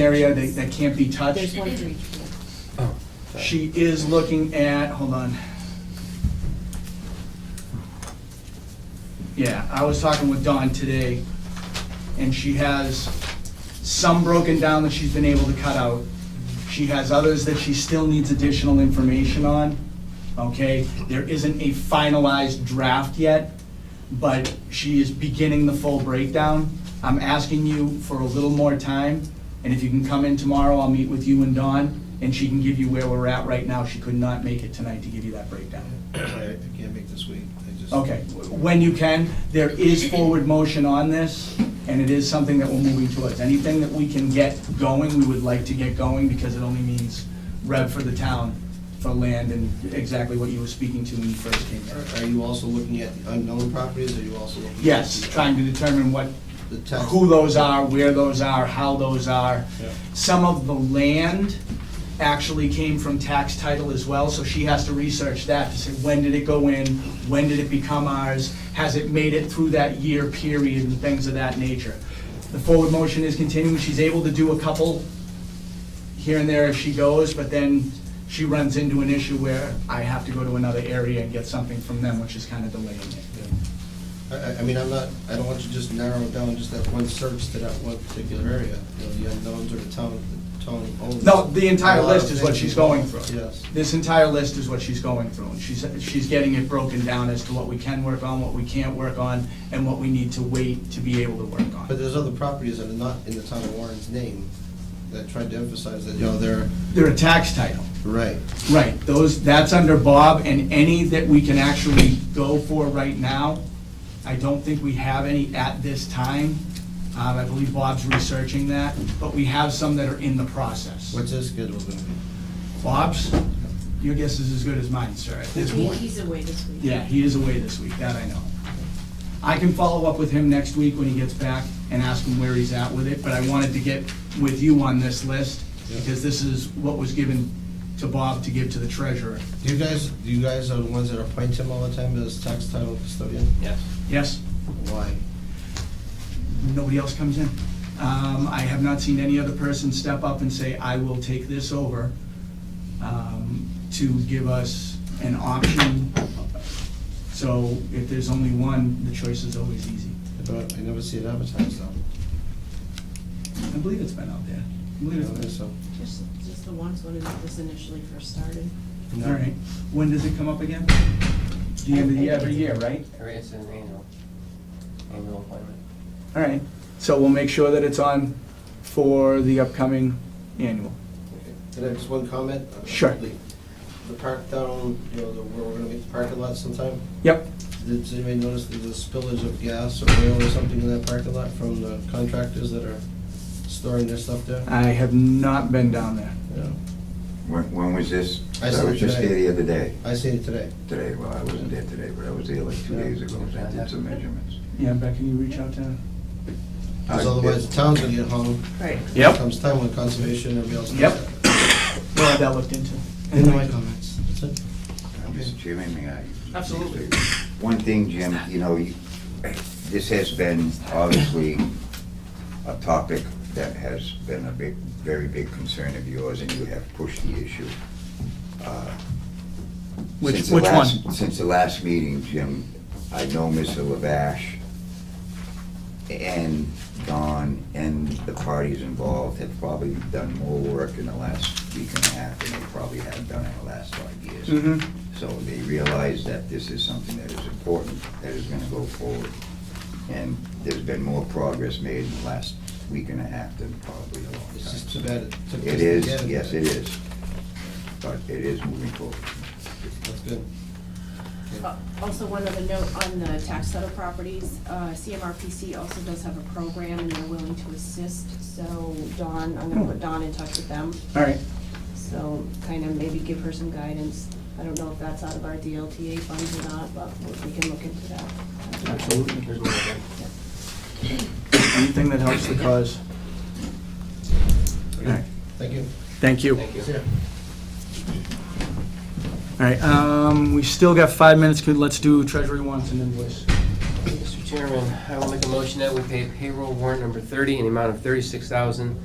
area that, that can't be touched. There's one for each one. Oh, sorry. She is looking at, hold on. Yeah, I was talking with Dawn today, and she has some broken down that she's been able to cut out. She has others that she still needs additional information on, okay? There isn't a finalized draft yet, but she is beginning the full breakdown. I'm asking you for a little more time, and if you can come in tomorrow, I'll meet with you and Dawn, and she can give you where we're at right now. She could not make it tonight to give you that breakdown. I I can't make this week, I just. Okay, when you can, there is forward motion on this, and it is something that we're moving towards. Anything that we can get going, we would like to get going, because it only means rev for the town for land and exactly what you were speaking to when you first came here. Are- Are you also looking at the unknown properties, are you also looking? at Yes, the- trying to determine what, The tax. who those are, where those are, how those are. Some of the land actually came from tax title as well, so she has to research that to say, when did it go in? When did it become ours? Has it made it through that year period and things of that nature? The forward motion is continuing. She's able to do a couple here and there if she goes, but then she runs into an issue where I have to go to another area and get something from them, which is kind of delaying it. I- I, I mean, I'm not, I don't want you to just narrow it down just that one search to that one particular area, you know, the unknowns or the town, the town owns. No, the entire A lot of list is what things she's going involved, through. Yes. This entire list is what she's going through, and she's, she's getting it broken down as to what we can work on, what we can't work on, and what we need to wait to be able to work But on. there's other properties that are not in the town of Warren's name that tried to emphasize that, you know, they're. They're a tax title. Right. Right, those, that's under Bob, and any that we can actually go for right now, I don't think we have any at this time. Um, I believe Bob's researching that, but we have some that are in the process. What's his schedule gonna be? Bob's, your guess is as good as mine, sir, at this He- point. He's away this week. Yeah, he is away this week, that I know. I can follow up with him next week when he gets back and ask him where he's at with it, but I wanted to get with you on this list, because this is what was given to Bob to give to the treasurer. Do you guys, do you guys are the ones that appoint him all the time as tax title custodian? Yes. Yes, Why? nobody else comes in. Um, I have not seen any other person step up and say, I will take this over, um, to give us an option. So if there's only one, the choice is always easy. I don't- I never see it advertised though. I believe it's been out there. I I believe it's don't been. think so. Just, just the ones when it was initially first started. No. All right, when does it come up again? The end of the, every year, right? Or It's an annual, annual appointment. All right, so we'll make sure that it's on for the upcoming annual. Can I have just one comment? Sure. The- The park down, you know, the- where we're gonna make the parking lot sometime, Yep, did did anybody notice there's a spillage of gas or oil or something in that parking lot from the contractors that are storing their stuff there? I have not been down there. Yeah. When, when was this? I saw I was just today. here the other day, I seen it today. today, well, I wasn't there today, but I was there like two Yeah. days ago, so I did some measurements. Yeah, Beck, can you reach out to? Because Uh, otherwise the town's gonna get hung. Right. Yep. Comes time when conservation and everybody else. does Yep. that. We'll have that looked into. End of my comments. That's it. Mr. Chairman, may I? Absolutely. One thing, Jim, you know, you- this has been obviously a topic that has been a big, very big concern of yours, and you have pushed the issue. uh, Which- since the which last- one? Since the last meeting, Jim, I know Mr. Lavash and Don and the parties involved have probably done more work in the last week and a half than they probably have done in the last five years. Mhm. So they realize that this is something that is important, that is gonna go forward. And there's been more progress made in the last week and a half than probably a long time. It's just too bad it took. this It to is, get yes, it is. But it is moving forward. That's good. Uh, Also, one other note on the tax title properties, uh, CMRPC also does have a program and they're willing to assist. So Dawn, I'm gonna put Dawn in touch with them, All right, so kind of maybe give her some guidance. I don't know if that's out of our DLTA funds or not, but we can look into that. absolutely. There's more than- Anything that helps the cause. All right, Thank you. thank you. Thank you. See ya. All right, um, we still got five minutes, Could let's do treasury wants and invoice. Mr. Chairman, I will make a motion that we pay payroll warrant number 30 in the amount of $36,000